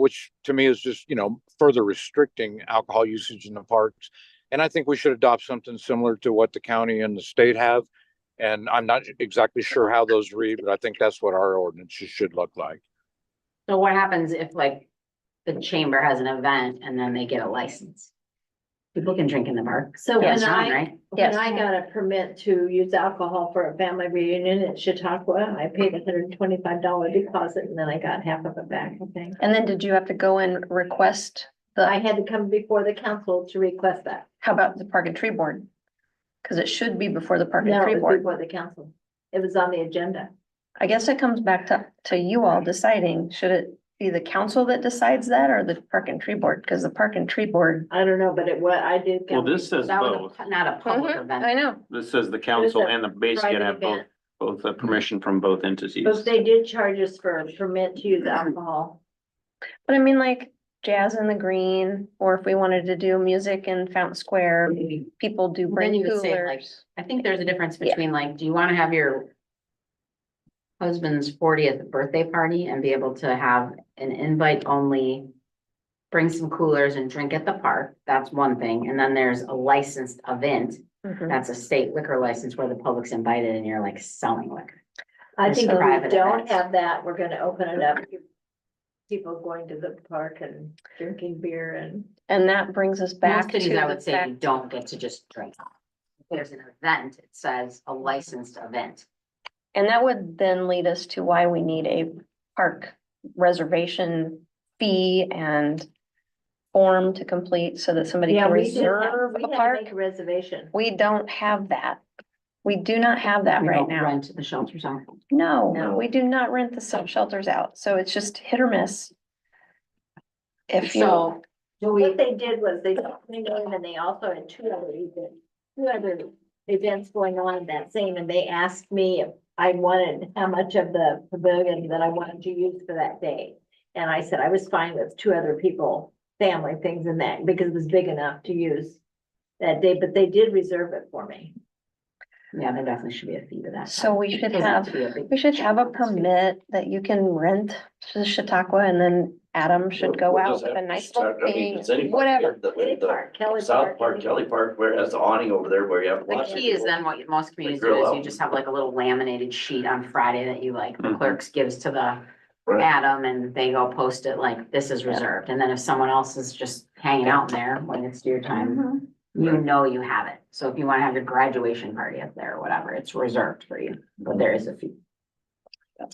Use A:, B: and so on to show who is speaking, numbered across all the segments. A: which to me is just, you know, further restricting alcohol usage in the parks. And I think we should adopt something similar to what the county and the state have. And I'm not exactly sure how those read, but I think that's what our ordinances should look like.
B: So what happens if like the chamber has an event and then they get a license? People can drink in the park.
C: So
B: Yeah,
C: when
B: it's on,
C: I,
B: right?
C: when I got a permit to use alcohol for a family reunion at Chautauqua, I paid a hundred and twenty-five dollar deposit and then I got half of it back, I think.
D: And then did you have to go and request
C: I
D: the,
C: had to come before the council to request that.
D: how about the Park and Tree Board? Cause it should be before the Park
C: No,
D: and Tree
C: it was
D: Board.
C: before the council. It was on the agenda.
D: I guess it comes back to, to you all deciding, should it be the council that decides that or the Park and Tree Board? Cause the Park and Tree Board.
C: I don't know, but it was, I did.
E: Well,
C: come-
E: this says
B: That was
E: both.
B: a- not a public
D: Mm-hmm.
B: event.
D: know.
E: This says the council
C: a
E: and the base can
C: private
E: have both,
C: event.
E: both the permission from both entities.
C: But they did charge us for a permit to use alcohol.
D: But I mean, like Jazz in the Green, or if we wanted to do music in Fountain Square, people do
B: Then
D: bring
B: you would say like,
D: coolers.
B: I think there's a difference
D: Yeah.
B: between like, do you want to have your husband's fortieth birthday party and be able to have an invite only, bring some coolers and drink at the park? That's one thing. And then there's a licensed event.
D: Mhm.
B: That's a state liquor license where the public's invited and you're like selling liquor.
C: I
B: It's
C: think if we
B: private
C: don't
B: events.
C: have that, we're gonna open it up to people going to the park and drinking beer and.
D: And that brings us
B: Most
D: back to
B: cities, I
D: the
B: would say, you
D: fact,
B: don't get to just drink. If There's an event, it says a licensed event.
D: and that would then lead us to why we need a park reservation fee and form to complete so that somebody
C: Yeah,
D: can
C: we did have-
D: reserve
C: we
D: a
C: had to
D: park.
C: make a Reservation.
D: We don't have that. We do not have that
B: We
D: right
B: don't
D: now.
B: Rent the shelters out.
D: No,
B: No.
D: we do not rent the sub shelters out, so it's just hit or miss. If you,
B: So, do we,
C: What they did was they came in and they also had two other events, two other events going on that same, and they asked me if I wanted, how much of the pavilion that I wanted to use for that day. And I said I was fine with two other people, family things and that, because it was big enough to use that day, but they did reserve it for me.
B: yeah, there definitely should be a fee to that.
D: so we should
B: Doesn't have
D: have
B: to be a big-
D: We should have a permit that you can rent to Chautauqua and then Adam should go
F: What
D: out
F: does
D: with a
F: that
D: nice
F: start-
D: little
F: I mean,
D: thing,
F: does anybody-
D: whatever.
F: the-
C: Kelly
F: the
C: Park, Kelly
F: South Park,
C: and-
F: Kelly Park, where it has the awning over there where you have.
B: The
F: lots of
B: key is
F: people.
B: then what you- most communities do
F: grill
B: is
F: out.
B: you just have like a little laminated sheet on Friday that you like, the
E: Mhm.
B: clerks gives to the
F: Mm-hmm. Right.
B: Adam and they go post it like, this is reserved. And then if someone else is just hanging out there when it's your
D: Mm-hmm.
B: time,
C: Mhm.
B: you
D: Hmm.
F: Right.
B: know you have it. So if you want to have your graduation party up there or whatever, it's reserved for you, but there is a fee.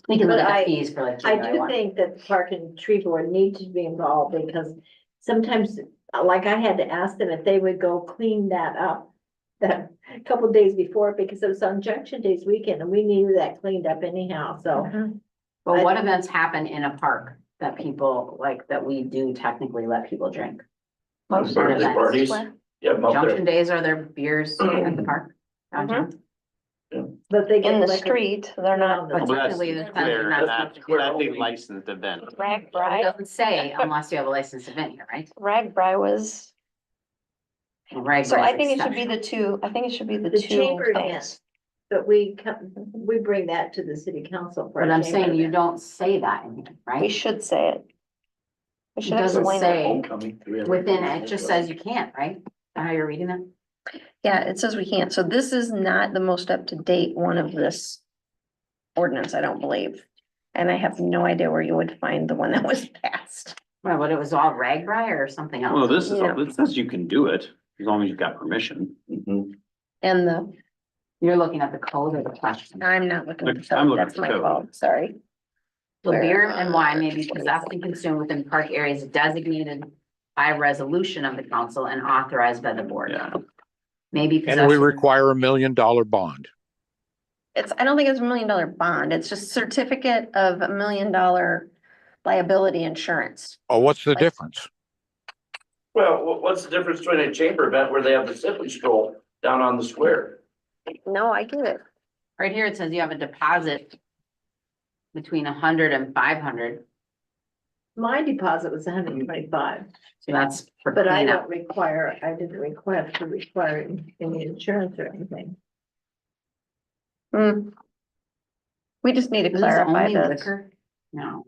B: We can look
C: But
B: at
C: I-
B: the fees for like.
C: I
B: January
C: do
B: one.
C: think that the park and tree board need to be involved because sometimes, like I had to ask them if they would go clean that up. That a couple days before, because it was on Junction Days weekend and we needed that cleaned up anyhow, so.
D: Mhm.
B: But what events happen in a park that people, like, that we do technically let people drink?
F: Those Birthday
B: events.
F: parties, yeah, up
B: Junction
F: there,
B: days, are there beers at the park?
D: Uh-huh.
B: downtown?
C: But they. get
D: In the
C: like a-
D: street, they're not.
C: Well,
B: But
E: Well, that's
B: technically, the fence is
E: clear,
B: not
E: that's,
B: supposed to be
E: that's a
B: open.
E: licensed event.
D: Rag
B: It
D: Bri,
B: doesn't say unless you have a licensed event here, right?
D: Rag Bri was,
B: And Rag
D: so
B: Bar's
D: I think it should be the
B: exception.
D: two, I think it should be the
C: The
D: two
C: chamber
D: things.
C: But we come, we bring that to the city council. for
B: But
C: a
B: I'm
C: chamber
B: saying you
C: event.
B: don't say that in here,
D: We
B: right?
D: should say it. We should
B: doesn't
D: explain
B: say-
D: it.
F: homecoming. we have-
B: Within, it just says you can't, right? Is that How you're reading that?
D: Yeah, it says we can't, so this is not the most up to date one of this ordinance, I don't believe. And I have no idea where you would find the one that was passed.
B: Well, but it was all rag bri or something else.
E: Well, this is,
D: Yeah.
E: this says you can do it as long as you've got permission.
F: Mhm.
D: And the,
B: You're looking at the code or the question.
D: I'm not looking, at
E: Look,
D: the
E: I'm
D: code.
E: looking at
D: that's
E: the
D: my
E: code.
D: fault, sorry.
B: The
D: Where
B: beer and wine may be
D: are-
B: possessed and consumed within park areas designated by resolution of the council and authorized by the board.
E: Yeah.
B: Maybe possessed.
A: And we require a million dollar bond.
D: It's, I don't think it's a million dollar bond, it's just certificate of a million dollar liability insurance.
A: Oh, what's the
D: Like-
A: difference?
F: Well, wha- what's the difference between a chamber event where they have the sipping stroll down on the square?
D: No, I get it.
B: Right here, it says you have a deposit between a hundred and five hundred,
C: My deposit was hundred and twenty-five,
B: so that's for
C: but I
B: cleanup.
C: don't require, I didn't require to require any insurance or anything.
D: Hmm. We just need to
B: Is this
D: clarify
B: only
D: this.
B: liquor? No.